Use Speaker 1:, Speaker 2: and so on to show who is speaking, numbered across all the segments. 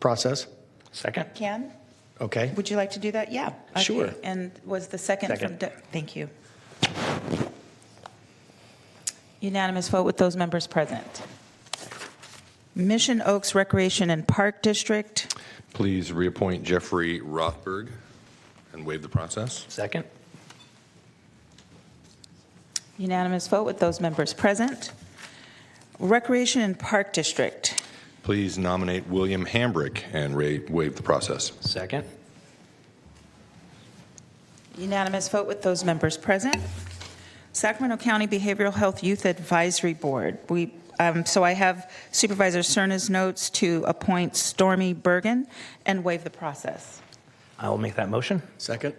Speaker 1: process?
Speaker 2: Second?
Speaker 3: Can,
Speaker 1: Okay.
Speaker 3: would you like to do that? Yeah. Okay.
Speaker 1: Sure.
Speaker 3: And was the second from,
Speaker 2: Second.
Speaker 3: Doug? thank you. Unanimous vote with those members present. Mission Oaks Recreation and Park District,
Speaker 4: Please reappoint Jeffrey Rothberg and waive the process.
Speaker 2: Second?
Speaker 3: unanimous vote with those members present. Recreation and Park District,
Speaker 4: Please nominate William Hambrick and ra- waive the process.
Speaker 2: Second?
Speaker 3: unanimous vote with those members present. Sacramento County Behavioral Health Youth Advisory Board, we, um, so I have Supervisor Cerna's notes to appoint Stormy Bergen and waive the process.
Speaker 2: I will make that motion.
Speaker 1: Second?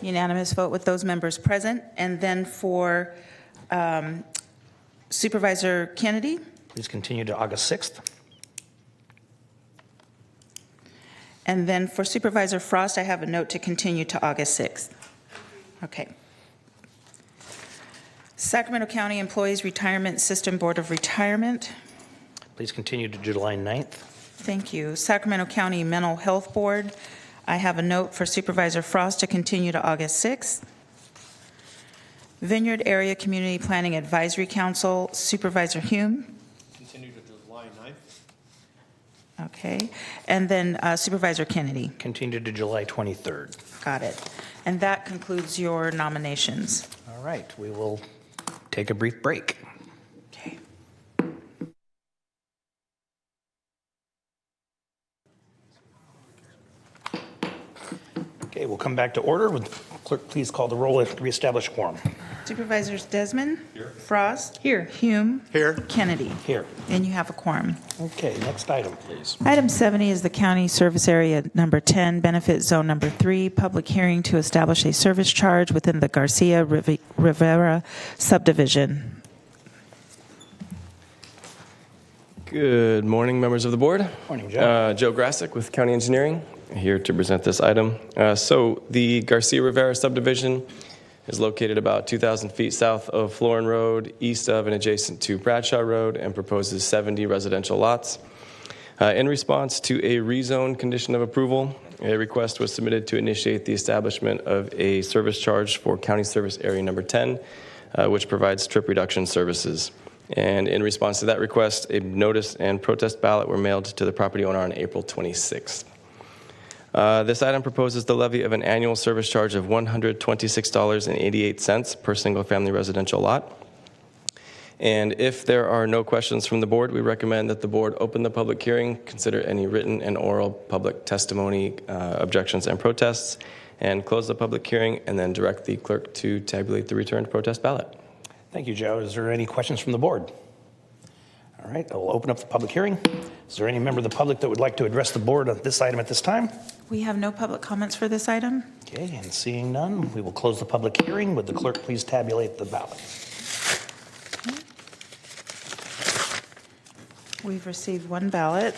Speaker 3: Unanimous vote with those members present. And then for um, Supervisor Kennedy,
Speaker 2: Please continue to August 6th.
Speaker 3: and then for Supervisor Frost, I have a note to continue to August 6th. Okay. Sacramento County Employees Retirement System Board of Retirement,
Speaker 2: Please continue to July 9th.
Speaker 3: thank you. Sacramento County Mental Health Board, I have a note for Supervisor Frost to continue to August 6th. Vineyard Area Community Planning Advisory Council, Supervisor Hume.
Speaker 5: Continue to July 9th.
Speaker 3: Okay, and then uh, Supervisor Kennedy,
Speaker 2: Continue to July 23rd.
Speaker 3: got it. And that concludes your nominations.
Speaker 2: All right, we will take a brief break.
Speaker 3: Okay.
Speaker 2: Okay, we'll come back to order. Would clerk please call the roll and reestablish quorum?
Speaker 3: Supervisors Desmond? Frost? Here. Hume?
Speaker 1: Here.
Speaker 3: Kennedy?
Speaker 2: Here.
Speaker 3: And you have a quorum.
Speaker 2: Okay, next item, please.
Speaker 3: Item 70 is the County Service Area Number 10, Benefit Zone Number 3, public hearing to establish a service charge within the Garcia Rivi- Rivera subdivision.
Speaker 6: Good morning, members of the board.
Speaker 2: Morning, Joe.
Speaker 6: Uh, Joe Grassick with County Engineering, here to present this item. Uh, So the Garcia Rivera subdivision is located about 2,000 feet south of Florin Road, east of and adjacent to Bradshaw Road, and proposes 70 residential lots. Uh, In response to a rezone condition of approval, a request was submitted to initiate the establishment of a service charge for County Service Area Number 10, uh, which provides trip reduction services. And in response to that request, a notice and protest ballot were mailed to the property owner on April 26th. Uh, This item proposes the levy of an annual service charge of $126.88 per single-family residential lot. And if there are no questions from the board, we recommend that the board open the public hearing, consider any written and oral public testimony, uh, objections, and protests, and close the public hearing, and then direct the clerk to tabulate the returned protest ballot.
Speaker 2: Thank you, Joe. Is there any questions from the board? All right, I will open up the public hearing. Is there any member of the public that would like to address the board on this item at this time?
Speaker 3: We have no public comments for this item?
Speaker 2: Okay, and seeing none, we will close the public hearing. Would the clerk please tabulate the ballot?
Speaker 3: We've received one ballot.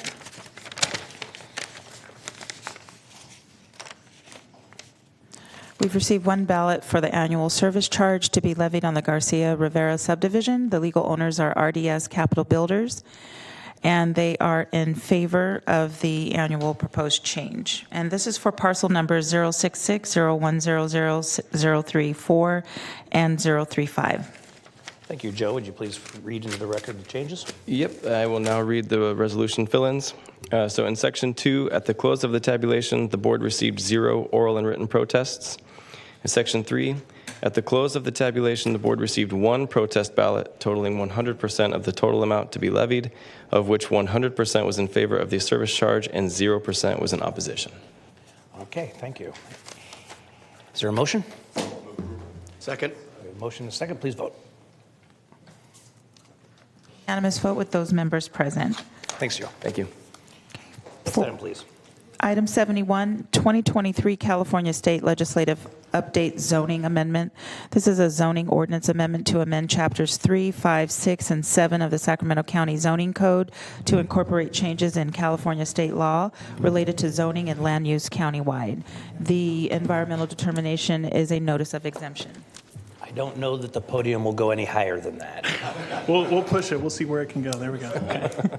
Speaker 3: We've received one ballot for the annual service charge to be levied on the Garcia Rivera subdivision. The legal owners are RDS Capital Builders, and they are in favor of the annual proposed change. And this is for parcel numbers 06601000034 and 035.
Speaker 2: Thank you, Joe. Would you please read into the record the changes?
Speaker 6: Yep, I will now read the resolution fill-ins. Uh, So in section two, at the close of the tabulation, the board received zero oral and written protests. In section three, at the close of the tabulation, the board received one protest ballot totaling 100% of the total amount to be levied, of which 100% was in favor of the service charge and 0% was in opposition.
Speaker 2: Okay, thank you. Is there a motion?
Speaker 1: Second?
Speaker 2: We have a motion and a second. Please vote.
Speaker 3: Unanimous vote with those members present.
Speaker 2: Thanks, Joe.
Speaker 6: Thank you.
Speaker 2: Next item, please.
Speaker 3: Item 71, 2023 California State Legislative Update Zoning Amendment. This is a zoning ordinance amendment to amend Chapters 3, 5, 6, and 7 of the Sacramento County Zoning Code to incorporate changes in California state law related to zoning and land use countywide. The environmental determination is a notice of exemption.
Speaker 2: I don't know that the podium will go any higher than that.
Speaker 5: We'll, we'll push it. We'll see where it can go. There we go.